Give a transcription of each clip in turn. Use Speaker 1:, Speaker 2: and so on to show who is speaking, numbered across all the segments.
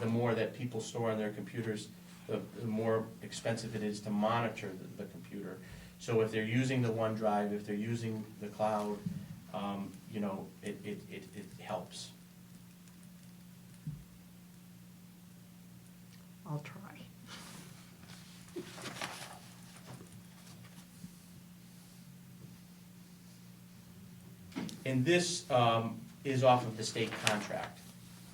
Speaker 1: the more that people store on their computers, the, the more expensive it is to monitor the, the computer. So if they're using the OneDrive, if they're using the cloud, um, you know, it, it, it, it helps.
Speaker 2: I'll try.
Speaker 1: And this um, is off of the state contract.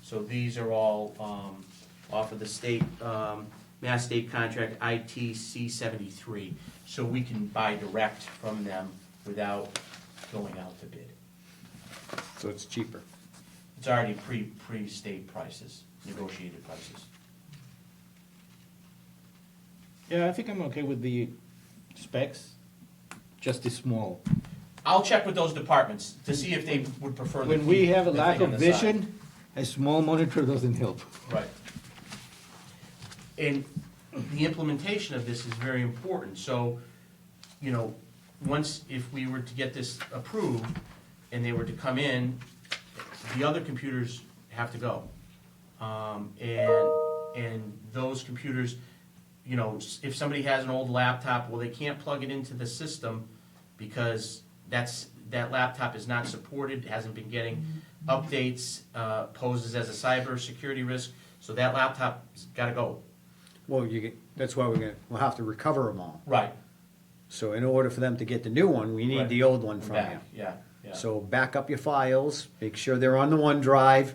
Speaker 1: So these are all um, off of the state, um, Mass State Contract ITC 73. So we can buy direct from them without going out to bid.
Speaker 3: So it's cheaper.
Speaker 1: It's already pre, pre-state prices, negotiated prices.
Speaker 3: Yeah, I think I'm okay with the specs, just the small.
Speaker 1: I'll check with those departments to see if they would prefer. to
Speaker 3: When we
Speaker 1: keep
Speaker 3: have a
Speaker 1: the
Speaker 3: lack
Speaker 1: thing
Speaker 3: of
Speaker 1: on the side.
Speaker 3: vision, a small monitor doesn't help.
Speaker 1: Right. And the implementation of this is very important, so, you know, once, if we were to get this approved, and they were to come in, the other computers have to go. Um, and, and those computers, you know, s- if somebody has an old laptop, well, they can't plug it into the system because that's, that laptop is not supported, hasn't been getting updates, uh, poses as a cybersecurity risk, so that laptop's gotta go.
Speaker 4: Well, you get, that's why we're gonna, we'll have to recover them all.
Speaker 1: Right.
Speaker 4: So in order for them to get the new one, we
Speaker 1: Right.
Speaker 4: need the old one from
Speaker 1: Back,
Speaker 4: you.
Speaker 1: yeah, yeah.
Speaker 4: So back up your files, make sure they're on the OneDrive.
Speaker 1: Mm.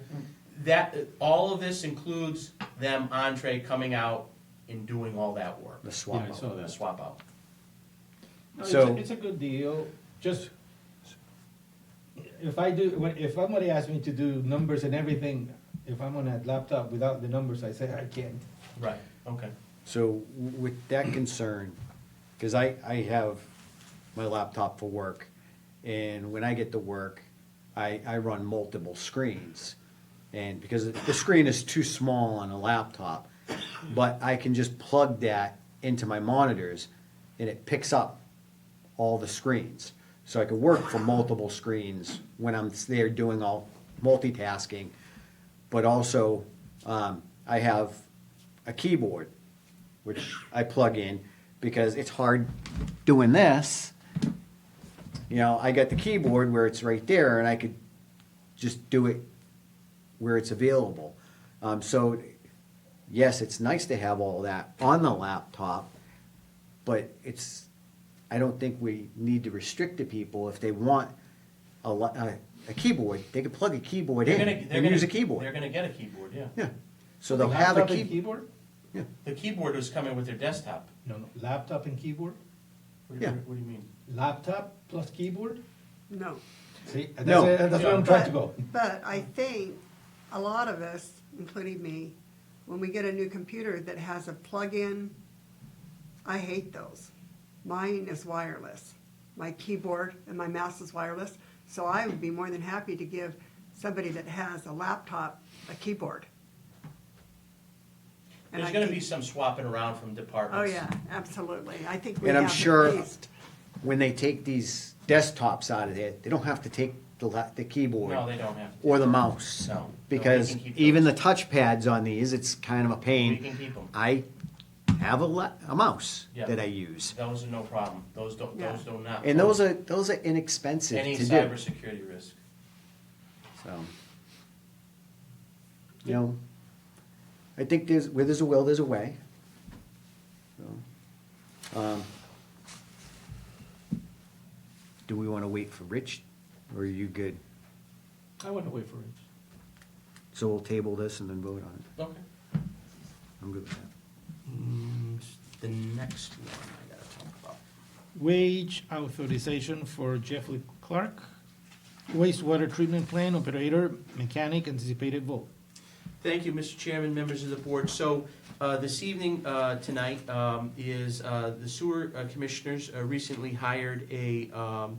Speaker 1: That, all of this includes them entree coming out and doing all that work,
Speaker 4: The swap.
Speaker 3: Yeah, I
Speaker 4: out.
Speaker 3: saw that.
Speaker 1: the swap out.
Speaker 3: No, it's,
Speaker 4: So-
Speaker 3: a, it's a good deal. Just if I do, when- if somebody asks me to do numbers and everything, if I'm on a laptop without the numbers, I say I can't.
Speaker 1: Right, okay.
Speaker 4: So w- with that concern, because I, I have my laptop for work, and when I get to work, I, I run multiple screens. And because the screen is too small on a laptop, but I can just plug that into my monitors, and it picks up all the screens. So I can work from multiple screens when I'm there doing all multitasking. But also, um, I have a keyboard, which I plug in because it's hard doing this. You know, I got the keyboard where it's right there and I could just do it where it's available. Um, so, yes, it's nice to have all that on the laptop, but it's, I don't think we need to restrict the people if they want a, la- a, a keyboard. They could plug a keyboard
Speaker 1: They're
Speaker 4: in
Speaker 1: gonna- they're
Speaker 4: and
Speaker 1: gonna-
Speaker 4: use a
Speaker 1: They're
Speaker 4: keyboard.
Speaker 1: gonna get a keyboard, yeah.
Speaker 4: Yeah. So they'll have a
Speaker 3: Laptop and
Speaker 4: keyboard.
Speaker 3: keyboard.
Speaker 1: The keyboard was coming with their desktop.
Speaker 3: No, no, laptop and keyboard.
Speaker 1: What do you,
Speaker 4: Yeah.
Speaker 1: what do you mean?
Speaker 3: Laptop plus keyboard.
Speaker 2: No.
Speaker 3: See, that's,
Speaker 4: No.
Speaker 3: that's where I'm trying to go.
Speaker 2: But- But I think a lot of us, including me, when we get a new computer that has a plug-in, I hate those. Mine is wireless. My keyboard and my mouse is wireless, so I would be more than happy to give somebody that has a laptop a keyboard. And
Speaker 1: There's
Speaker 2: I
Speaker 1: gonna
Speaker 2: think-
Speaker 1: be some swapping around from
Speaker 2: Oh,
Speaker 1: departments.
Speaker 2: yeah, absolutely. I think we
Speaker 4: And
Speaker 2: have
Speaker 4: I'm
Speaker 2: at
Speaker 4: sure-
Speaker 2: least.
Speaker 4: when they take these desktops out of there, they don't have to take the, la- the keyboard
Speaker 1: No, they don't have to.
Speaker 4: or the mouse.
Speaker 1: No, no, they
Speaker 4: Because
Speaker 1: can keep
Speaker 4: even the
Speaker 1: those.
Speaker 4: touchpads on these, it's kind of a
Speaker 1: We
Speaker 4: pain.
Speaker 1: can keep them.
Speaker 4: I have a, la- a mouse
Speaker 1: Yeah.
Speaker 4: that I use.
Speaker 1: Those are no problem. Those don't,
Speaker 2: Yeah.
Speaker 1: those do not.
Speaker 4: And those
Speaker 1: pose
Speaker 4: are, those are inexpensive
Speaker 1: Any
Speaker 4: to do.
Speaker 1: cybersecurity risk.
Speaker 4: So, You know, I think there's, where there's a will, there's a way. So, um, Do we want to wait for Rich or are you good?
Speaker 3: I went away for it.
Speaker 4: So we'll table this and then vote on it.
Speaker 1: Okay.
Speaker 4: I'm good with that.
Speaker 1: Mm, The next one I gotta talk about.
Speaker 5: Wage authorization for Jeffrey Clark. Wastewater treatment plant operator, mechanic, anticipated vote.
Speaker 1: Thank you, Mr. Chairman, members of the board. So uh, this evening, uh, tonight, um, is uh, the sewer uh, commissioners uh, recently hired a, um,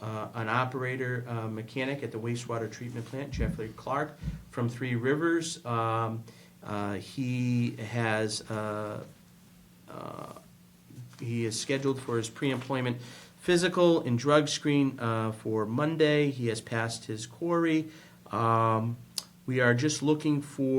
Speaker 1: uh, an operator uh, mechanic at the wastewater treatment plant, Jeffrey Clark, from Three Rivers. Um, uh, He has uh, uh, he is scheduled for his pre-employment physical and drug screen uh, for Monday. He has passed his query. Um, We are just looking for